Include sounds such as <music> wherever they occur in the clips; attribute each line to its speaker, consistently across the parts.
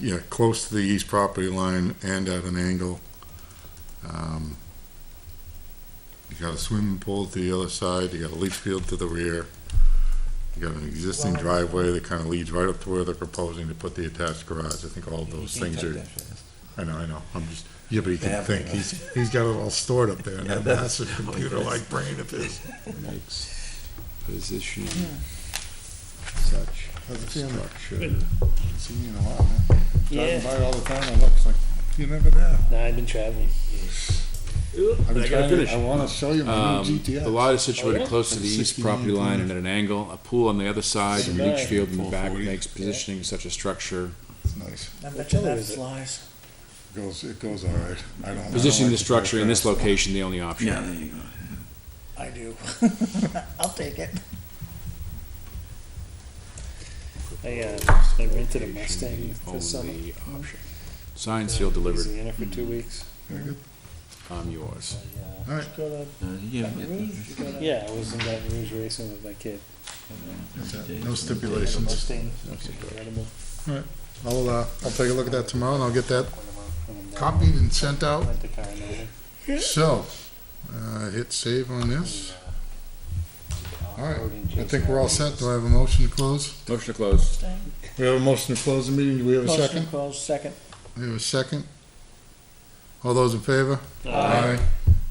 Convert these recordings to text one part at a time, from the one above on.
Speaker 1: yeah, close to the east property line and at an angle. Um, You got a swimming pool to the other side, you got a leach field to the rear. You got an existing driveway that kind of leads right up to where they're proposing to put the attached garage. I think all of those things are, I know, I know, I'm just, yeah, but he
Speaker 2: They
Speaker 1: can
Speaker 2: have
Speaker 1: think,
Speaker 2: it.
Speaker 1: he's, he's got it all stored up there in that
Speaker 2: Yeah, that-
Speaker 1: massive computer-like brain of his.
Speaker 3: makes position such
Speaker 1: How's it feeling?
Speaker 3: structure.
Speaker 1: Seen you in a while, man.
Speaker 4: Yeah.
Speaker 1: Driving by all the time, I look, it's like, you never know.
Speaker 4: Nah, I've been traveling.
Speaker 1: I've been
Speaker 2: I gotta
Speaker 1: trying to-
Speaker 2: finish.
Speaker 1: I wanna show you my
Speaker 3: Um,
Speaker 1: new
Speaker 3: The
Speaker 1: GTS.
Speaker 3: lot is situated
Speaker 4: Oh, yeah?
Speaker 3: close to the
Speaker 1: That's
Speaker 3: east
Speaker 1: 69
Speaker 3: property line and
Speaker 1: feet.
Speaker 3: at an angle. A pool on the other side and a leach
Speaker 4: Right.
Speaker 3: field in the back
Speaker 1: 440.
Speaker 3: makes positioning such a structure.
Speaker 1: It's nice.
Speaker 5: I
Speaker 4: Which
Speaker 5: bet you
Speaker 4: other
Speaker 5: that
Speaker 4: is it?
Speaker 5: flies.
Speaker 1: Goes, it goes all right. I don't. I don't
Speaker 3: Positioning the
Speaker 1: like to drive
Speaker 3: structure in this
Speaker 1: fast.
Speaker 3: location, the only option.
Speaker 2: Yeah, there you go.
Speaker 5: I do. <laughs> I'll take it.
Speaker 4: I, uh, I rented a Mustang for summer. Oh,
Speaker 3: Only option. Signed, sealed, delivered.
Speaker 4: Easy in it for two
Speaker 1: Mm-hmm.
Speaker 4: weeks.
Speaker 1: Very good.
Speaker 3: I'm yours.
Speaker 4: I,
Speaker 1: All
Speaker 4: uh,
Speaker 1: right.
Speaker 4: go to-
Speaker 2: Uh, yeah, but-
Speaker 4: Yeah, I was in Baton Rouge racing with my kid.
Speaker 1: That's it.
Speaker 2: days.
Speaker 1: No
Speaker 4: I had a
Speaker 1: stipulations.
Speaker 4: Mustang.
Speaker 3: Okay.
Speaker 4: Incredible.
Speaker 1: I'll, uh, I'll take a look at that tomorrow and I'll get that
Speaker 4: When I'm
Speaker 1: copied and sent out.
Speaker 4: done, Rent a car and everything.
Speaker 1: So, uh, hit save on this. All right. I think we're all set. Do I have a motion to close?
Speaker 3: Motion to close.
Speaker 1: We have a motion to close the meeting. Do we have a
Speaker 5: Motion
Speaker 1: second?
Speaker 5: to close, second.
Speaker 1: We have a second. All those in favor?
Speaker 4: Uh,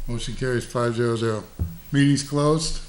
Speaker 1: Motion carries five zero zero. Meeting's closed.